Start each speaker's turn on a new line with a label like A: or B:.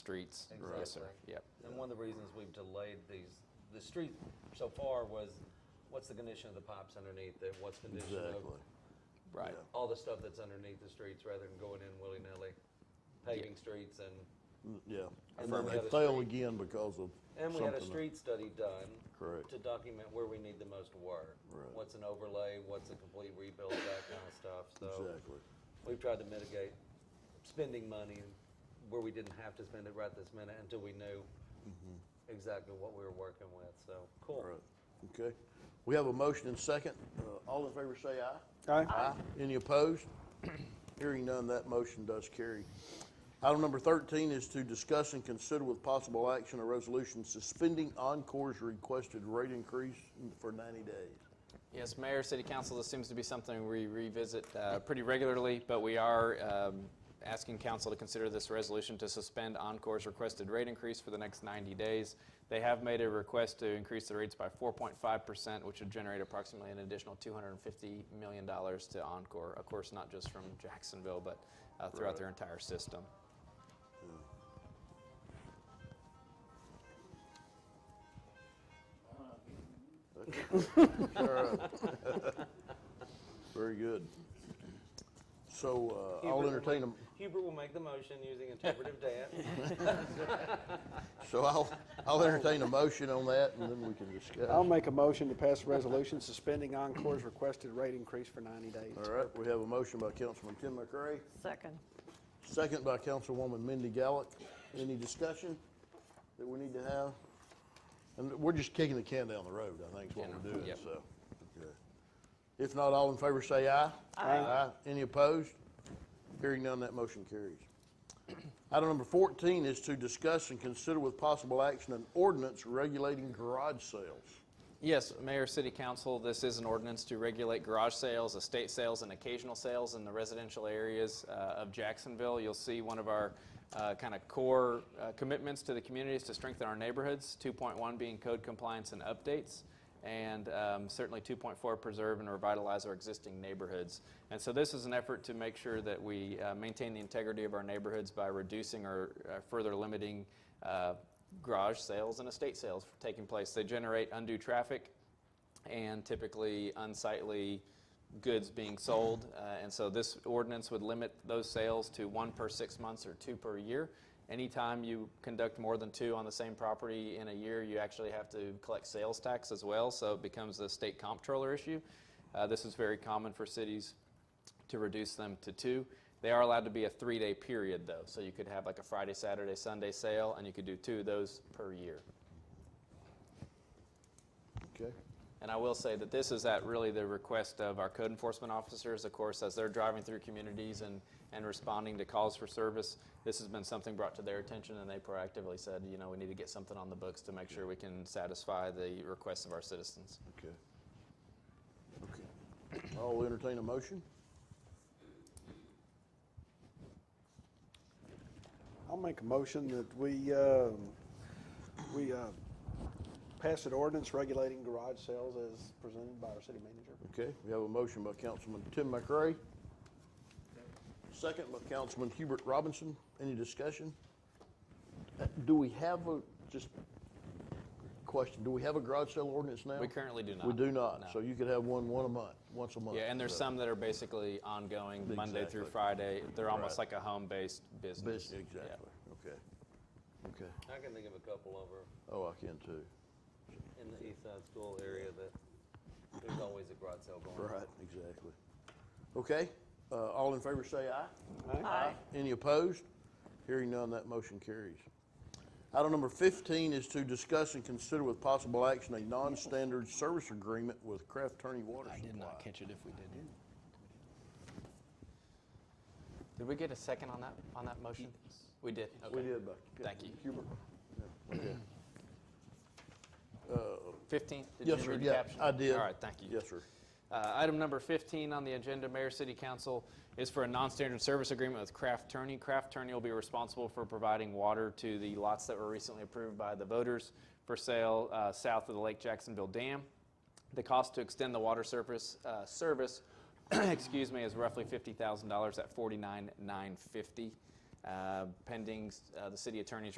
A: streets. Yes, sir.
B: Exactly.
A: Yep.
B: And one of the reasons we've delayed these, the street so far was, what's the condition of the pipes underneath it? What's condition
C: Exactly.
B: of
A: Right.
C: Yeah.
B: all the stuff that's underneath the streets rather than going in willy-nilly, paving
A: Yeah.
B: streets and,
C: Mm, Yeah.
B: And
C: And
B: then
C: then
B: we had a
C: they fail
B: street-
C: again because of
B: and we had a
C: something-
B: street study done.
C: Correct.
B: To document where we need the most work.
C: Right.
B: What's an overlay, what's a complete rebuild, that kind of stuff, so.
C: Exactly.
B: We've tried to mitigate spending money where we didn't have to spend it right this minute until we knew exactly what we were working with, so,
C: All
B: cool.
C: Mm-hmm. right. Okay. We have a motion and second. Uh, All in favor say aye.
D: Aye.
C: Aye. Any opposed? Hearing none, that motion does carry. Item number 13 is to discuss and consider with possible action a resolution suspending Encore's requested rate increase for 90 days.
A: Yes, Mayor, City Council, this seems to be something we revisit uh, pretty regularly, but we are um, asking council to consider this resolution to suspend Encore's requested rate increase for the next 90 days. They have made a request to increase the rates by 4.5%, which would generate approximately an additional $250 million to Encore. Of course, not just from Jacksonville, but uh, throughout their entire system.
C: Very good. So uh, I'll
B: Hubert will
C: entertain
B: make-
C: them.
B: Hubert will make the motion using interpretive dance.
C: So I'll, I'll entertain a motion on that, and then we can discuss.
D: I'll make a motion to pass a resolution suspending Encore's requested rate increase for 90 days.
C: All right, we have a motion by Councilman Tim McCray,
E: Second.
C: second by Councilwoman Mindy Gallick. Any discussion that we need to have? And we're just kicking the can down the road, I think is what we're doing,
A: Yep.
C: so. okay. If not, all in favor say aye. Aye. Any opposed? Hearing none, that motion carries. Item number 14 is to discuss and consider with possible action an ordinance regulating garage sales.
A: Yes, Mayor, City Council, this is an ordinance to regulate garage sales, estate sales, and occasional sales in the residential areas uh, of Jacksonville. You'll see one of our kind of core uh, commitments to the community is to strengthen our neighborhoods, 2.1 being code compliance and updates, and um, certainly 2.4 preserve and revitalize our existing neighborhoods. And so this is an effort to make sure that we uh, maintain the integrity of our neighborhoods by reducing or uh, further limiting uh, garage sales and estate sales taking place. They generate undue traffic and typically unsightly goods being sold. Uh, and so this ordinance would limit those sales to one per six months or two per year. Anytime you conduct more than two on the same property in a year, you actually have to collect sales tax as well. So it becomes a state comptroller issue. Uh, this is very common for cities to reduce them to two. They are allowed to be a three day period though. So you could have like a Friday, Saturday, Sunday sale, and you could do two of those per year.
C: Okay?
A: And I will say that this is at really the request of our code enforcement officers, of course, as they're driving through communities and, and responding to calls for service. This has been something brought to their attention, and they proactively said, you know, we need to get something on the books to make sure we can satisfy the requests of our citizens.
C: Okay. Okay. I'll entertain a motion.
D: I'll make a motion that we, um, we uh, pass an ordinance regulating garage sales as presented by our city manager.
C: Okay, we have a motion by Councilman Tim McRae. Second by Councilman Hubert Robinson. Any discussion? Uh, Do we have a, just question, do we have a garage sale ordinance now?
A: We currently do not.
C: We do
A: No.
C: not. So you could have one, one a month, once a month.
A: Yeah, and there's
C: So-
A: some that are basically ongoing Monday through
C: Exactly.
A: Friday. They're almost
C: Right.
A: like a home based business.
C: Business, Exactly, okay. Okay.
B: I can think of a couple over
C: Oh, I can too.
B: in the east side school area that there's always a garage sale going on.
C: Right, exactly. Okay, uh, all in favor say aye.
E: Aye.
C: Any opposed? Hearing none, that motion carries. Item number 15 is to discuss and consider with possible action a non-standard service agreement with Craft Attorney Water
A: I did not
C: Supply.
A: catch it if we did. Did we get a second on that, on that motion? We did, okay.
C: Uh, We did, but.
A: Thank you.
C: Hubert?
A: Fifteen? Did you
C: Uh, Yes, sir,
A: read the
C: yeah,
A: caption?
C: I did.
A: All right, thank you.
C: Yes, sir.
A: Uh, Item number 15 on the agenda, Mayor, City Council, is for a non-standard service agreement with Craft Turney. Craft Turney will be responsible for providing water to the lots that were recently approved by the voters for sale uh, south of the Lake Jacksonville Dam. The cost to extend the water surface, uh, service, excuse me, is roughly $50,000 at $49,950. uh, pending uh, the city attorney's